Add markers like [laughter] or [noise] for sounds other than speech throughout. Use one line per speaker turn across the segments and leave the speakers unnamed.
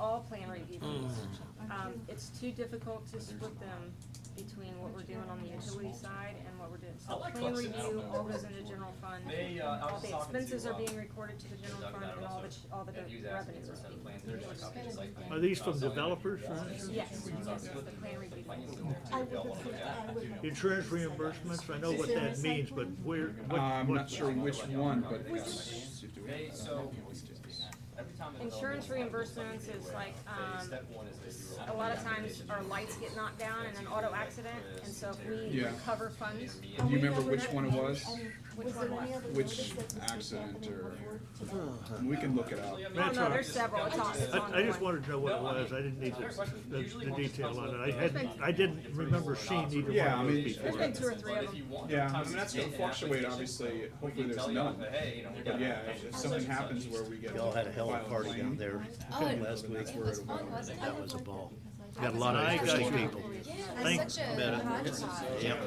Mm.
Um, it's too difficult to
But there's
split
not.
them between what we're doing on the utility side and what we're doing.
I
So
like
plan
Clemson. I don't
review
know
all
where
goes
it's
into
going.
general fund.
They, uh, I
All
was
the
talking to,
expenses are
uh,
being recorded to the general
Doug
fund
about it
and all the,
also.
ch- all the
And he was
revenues
asking
are
for some
being.
plans, there's a copy of the site plan.
Are these from
Uh, so if you
developers,
want
right?
Yes.
it, we would talk
Yes,
about
the plan review.
plans in there, too,
I
if y'all
would
wanna look
look
at
at- I
it.
would look
Insurance
at that.
reimbursements, I know what
Is there a
that
site
means, but
plan?
where,
Uh,
what,
I'm not
what?
sure which one, but
They, so, every time. the
Insurance
developer comes up with
reimbursements
something
is
new,
like,
they-
um,
step one is they do
A lot of
application.
times our lights get knocked down in an auto accident, and so if we
Yeah.
recover funds, Oh,
Me
Do
and
you
you.
remember which one it was?
Which
And was
one
there any
was?
other
Which
notice that's been
accident
happening
or-
before today?
We can look it up.
That's
Oh, no,
all
there's
right.
several, it's on, it's on
I, I just
one.
wanted to know what it was, I didn't need
Fair
the,
question.
the,
Usually
the
once it
detail
comes
on it,
up,
I
uh,
hadn't, I didn't remember seeing either
Yeah, I
one of
mean-
those before.
There's been two or three
But
of
if you
them.
want,
Yeah, I mean,
sometimes
that's
it's
gonna
in an
fluctuate,
application.
obviously.
We can
Hopefully there's
tell you,
none.
Hey, you know, we
But
got.
yeah, if- if something happens where we get.
Y'all had a hell of
file
a party down
claim,
there
Oh, it-
last week.
That's where it'll go.
That was a ball.
That
Got a
was
lot of
I
interesting
got you.
people.
Yeah,
Thank-
that's such a.
Better. Yep,
hodgepodge.
yep.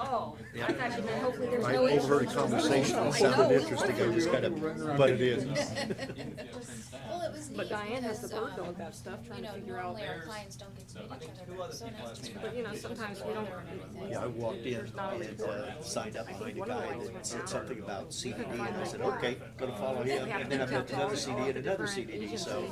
Oh,
Yeah.
I thought you meant hopefully there's
I
no. issues.
overheard a conversation
I
that
know, we
sounded interesting, I
wondered.
just kind of, but it is.
Well, it was neat
But Diane has the
because,
book to
um,
look up stuff, trying
you
to
know,
figure out.
normally our clients don't get to meet
I think
each
two
other,
other
so
people
nice
have
to
made that.
meet
But you know, sometimes we don't.
Yeah, I walked in
There's not always
and uh, signed up behind a guy and said something about CD and I said, okay, gonna follow him. And then I met another CD and another CD, so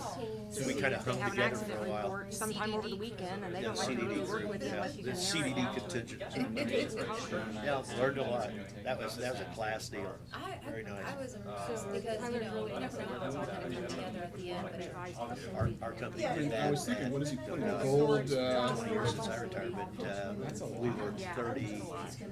we kind of
They
hung
have an
together for
accident
a while.
report sometime over the weekend, and they
Yeah,
don't like to
CDD
really work
group,
with you
yeah,
unless you
the
can narrow it
CDD
down.
contingent.
[laughs] It's hard.
Yeah, learned a lot. That was, that was a class deal.
I,
Very
I,
nice.
I was
Uh, So
impressed because, you
Tyler's
know,
really
everyone
excellent
was all
about
gonna come
that.
together at the end, but it
Advised us to
Our,
leave
our
the
company
end.
did that,
I was thinking, what is he
that,
putting, a gold, uh,
twenty years since I retired, but, uh, we were thirty,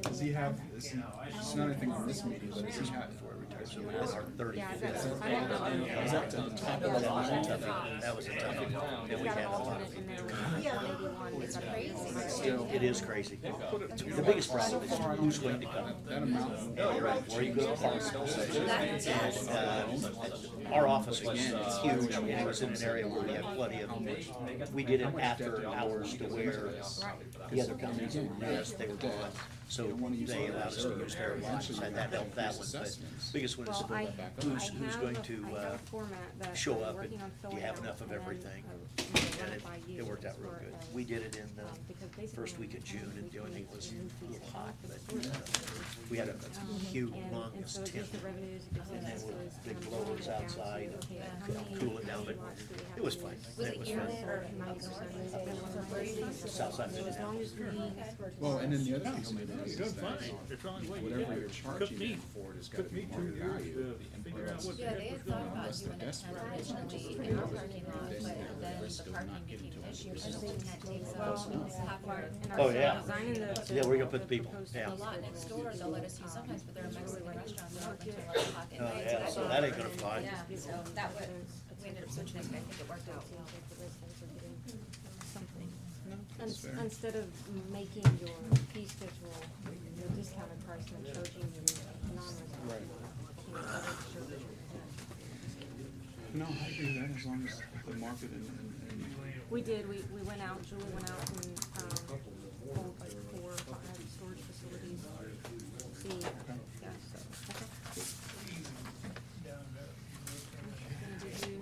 does he have, is he, it's not anything from this meeting, but does he have for
so we had our
advertising?
thirty.
Yeah, I bet-
That
I don't know.
Is that to the top of the
was
line?
a tough, that was a tough, one. and
It's
Oh,
got an
we had a lot
alternate
of
in
it.
there. with
Yeah.
maybe one that's crazy.
Still.
It is crazy. The biggest problem is who's going to come. Oh,
That amount.
You're right, where you go to park.
That's- yes.
Uh, Our office was huge, and it was in an area where we had plenty of, we did it after hours to where the other companies were rest, they were gone. So they allowed us to use their lots, and that helped that one, but biggest one is
Well, I, I
about who's, who's going to,
have, I have
uh,
a format that
show
I'm
up
working
and
on
do you
filling
have
out,
enough
and
of
then,
everything?
um,
and it,
identify
it worked out real
users
good.
for,
We
uh,
did it in
um, because
the
basically
first
when
week of
we
June,
came,
and the
we
only thing
made
was
an
a
increase
little
in
hot,
the
but,
first
uh, we had a
Um, and-
huge,
and so
longest
it
tent.
gives the revenues, it gives the
And there were
expenses,
big
and I'm
blowers
going down to,
outside,
okay,
and uh,
how
cool
many
it down, but
lots do we have
it was
to
fine.
use?
Was
it
was
yearly
fine.
or
Ninety percent is the one we're using.
Southside
So as long as we.
Well, and then the other thing you'll notice
Good
is
find,
that
it's on, well, you
whatever
got
you're
it.
charging
Cooked meat.
them for it has got to
Took
be
me
market
two years
value.
to figure out what the
Yeah, they
heck
had
was
thought
going on.
about
Unless they're
doing it
desperate,
transactionally in our parking lot, but then the parking became an issue because the tent takes up half our.
Oh, yeah.
Designing the-
Yeah, we're gonna put the people,
proposed
yeah.
The lot next door, they'll let us use sometimes, but they're a Mexican restaurant, they're open till eleven o'clock at
Oh,
night.
yeah, so that ain't gonna fly.
Yeah, so that was, we ended up switching it, but I think it worked out well.
Something.
That's
Ins-
fair.
Instead of making your fee schedule, your discounted price and then charging your non-resident. you know, other services.
No, I agree with that as long as the market and, and,
We did, we, we went out, Julie went out and, um, pulled like four, or five storage facilities. See, yeah, so, okay. Did you-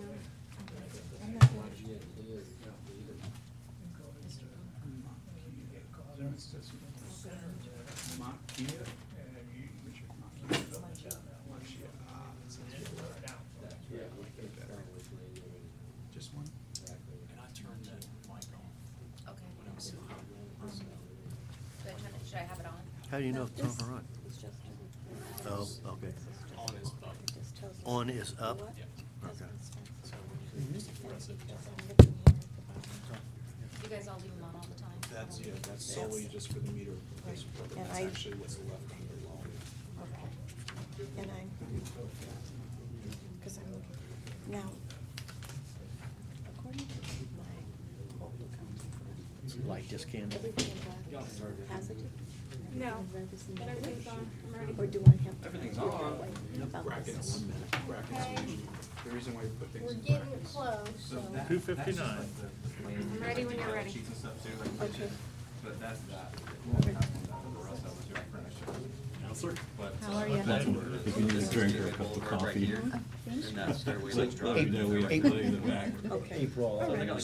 and. Makia. Richard Makia. Makia, ah, that's it. Better. Just one?
Okay. Should I turn it, should I have it on?
How do you know if it's over on? Oh, okay. On is up. On is up? Okay.
You guys all leave them on all the time?
That's, yeah, that's solely just for the meter replacement, program.
And
that's
I-
actually what's left on the loan.
And I'm, because I'm looking, now, according to my whole account,
Light this candle.
everything in black has it?
No,
Red is in
but
the
everything's
picture.
on, I'm ready.
Or do I have to?
Everything's
figure
on.
out what about
Brackets,
this?
brackets are usually,
The reason why you put things
We're
in
getting
brackets.
close, so.
Two fifty-nine.
I'm ready when you're ready.
Okay.
But that's that.
How are you?
That's what it is. We just drink our cup of coffee.
Thank you.
Let- let me know we have to leave the back.
Okay.
April.